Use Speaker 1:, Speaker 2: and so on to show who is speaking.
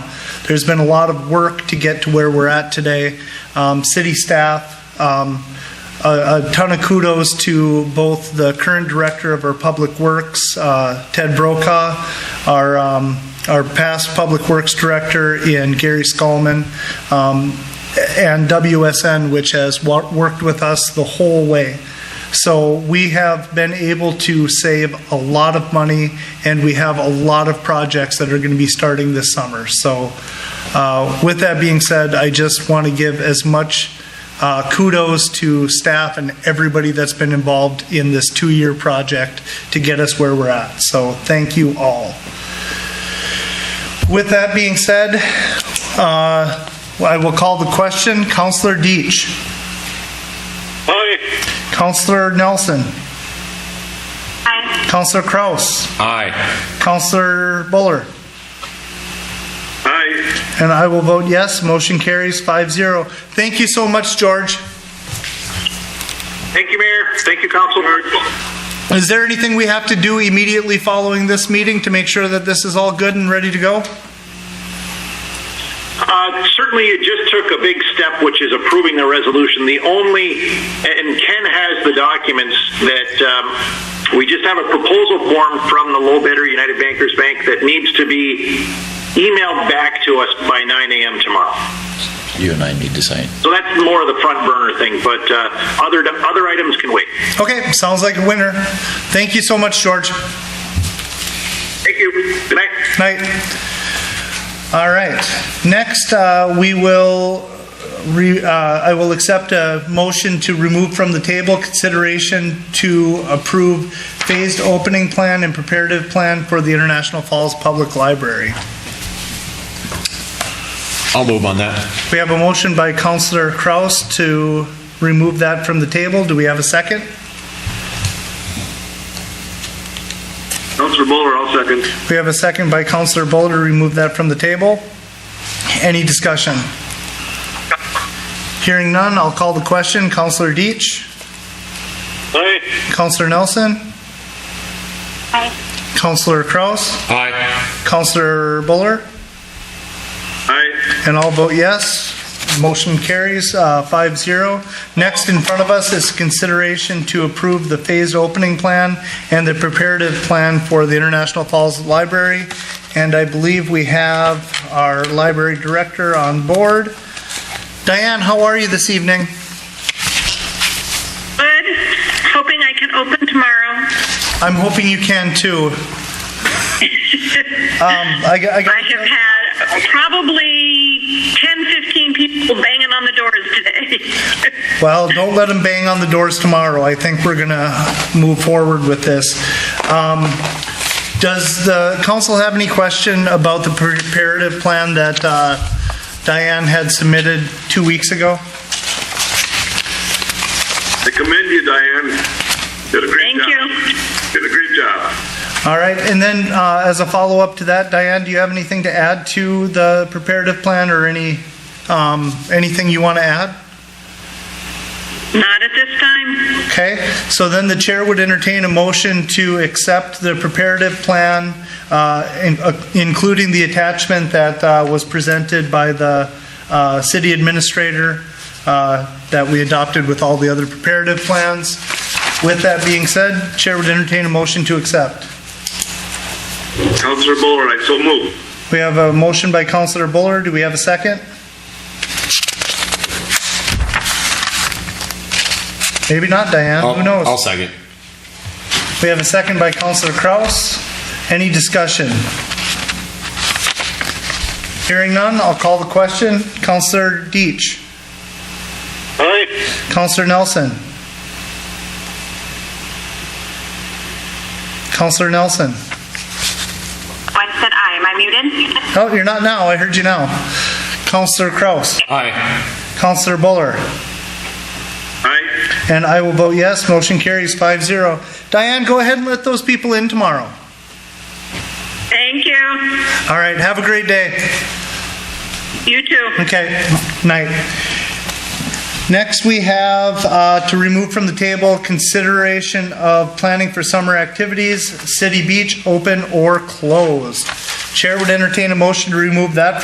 Speaker 1: There's been a lot of work to get to where we're at today. Um, City staff, um, a a ton of kudos to both the current director of our Public Works, uh, Ted Brokaw, our, um, our past Public Works Director in Gary Skolman, um, and WSN, which has wa- worked with us the whole way. So we have been able to save a lot of money, and we have a lot of projects that are going to be starting this summer. So uh, with that being said, I just want to give as much uh, kudos to staff and everybody that's been involved in this two-year project to get us where we're at. So thank you all. With that being said, uh, I will call the question. Counselor Deitch.
Speaker 2: Aye.
Speaker 1: Counselor Nelson.
Speaker 3: Aye.
Speaker 1: Counselor Kraus.
Speaker 4: Aye.
Speaker 1: Counselor Buller.
Speaker 2: Aye.
Speaker 1: And I will vote yes. Motion carries 5-0. Thank you so much, George.
Speaker 2: Thank you, Mayor. Thank you, Council.
Speaker 1: Is there anything we have to do immediately following this meeting to make sure that this is all good and ready to go?
Speaker 2: Uh, certainly, it just took a big step, which is approving the resolution. The only, and Ken has the documents that um, we just have a proposal form from the low bidder, United Bankers Bank, that needs to be emailed back to us by 9 a.m. tomorrow.
Speaker 4: You and I need to sign.
Speaker 2: So that's more of the front burner thing, but uh, other other items can wait.
Speaker 1: Okay, sounds like a winner. Thank you so much, George.
Speaker 2: Thank you. Good night.
Speaker 1: Night. All right. Next, uh, we will, re- uh, I will accept a motion to remove from the table consideration to approve phased opening plan and preparative plan for the International Falls Public Library.
Speaker 4: I'll move on that.
Speaker 1: We have a motion by Counselor Kraus to remove that from the table. Do we have a second?
Speaker 2: Councilor Bowler, I'll second.
Speaker 1: We have a second by Counselor Boulder, remove that from the table. Any discussion? Hearing none, I'll call the question. Counselor Deitch?
Speaker 2: Aye.
Speaker 1: Counselor Nelson?
Speaker 3: Aye.
Speaker 1: Counselor Kraus?
Speaker 4: Aye.
Speaker 1: Counselor Buller?
Speaker 2: Aye.
Speaker 1: And I'll vote yes. Motion carries uh, 5-0. Next in front of us is consideration to approve the phased opening plan and the preparative plan for the International Falls Library. And I believe we have our library director on board. Diane, how are you this evening?
Speaker 3: Good. Hoping I can open tomorrow.
Speaker 1: I'm hoping you can too. Um, I got- I got-
Speaker 3: I have had probably 10, 15 people banging on the doors today.
Speaker 1: Well, don't let them bang on the doors tomorrow. I think we're going to move forward with this. Um, Does the council have any question about the preparative plan that uh, Diane had submitted two weeks ago?
Speaker 5: I commend you, Diane. Did a great
Speaker 3: Thank
Speaker 5: job.
Speaker 3: you.
Speaker 5: Did a great job.
Speaker 1: All right, and then uh, as a follow-up to that, Diane, do you have anything to add to the preparative plan or any, um, anything you want to add?
Speaker 3: Not at this time.
Speaker 1: Okay, so then the chair would entertain a motion to accept the preparative plan, uh, in- uh, including the attachment that uh, was presented by the uh, city administrator uh, that we adopted with all the other preparative plans. With that being said, chair would entertain a motion to accept.
Speaker 5: Councilor Bowler, I so move.
Speaker 1: We have a motion by Counselor Buller. Do we have a second? Maybe not, Diane. Who knows?
Speaker 4: I'll second.
Speaker 1: We have a second by Counselor Kraus. Any discussion? Hearing none, I'll call the question. Counselor Deitch.
Speaker 2: Aye.
Speaker 1: Counselor Nelson. Counselor Nelson.
Speaker 3: Oh, I said aye. Am I muted?
Speaker 1: Oh, you're not now. I heard you now. Counselor Kraus.
Speaker 4: Aye.
Speaker 1: Counselor Buller.
Speaker 5: Aye.
Speaker 1: And I will vote yes. Motion carries 5-0. Diane, go ahead and let those people in tomorrow.
Speaker 3: Thank you.
Speaker 1: All right, have a great day.
Speaker 3: You too.
Speaker 1: Okay, night. Next, we have uh, to remove from the table consideration of planning for summer activities, city beach, open or closed. Chair would entertain a motion to remove that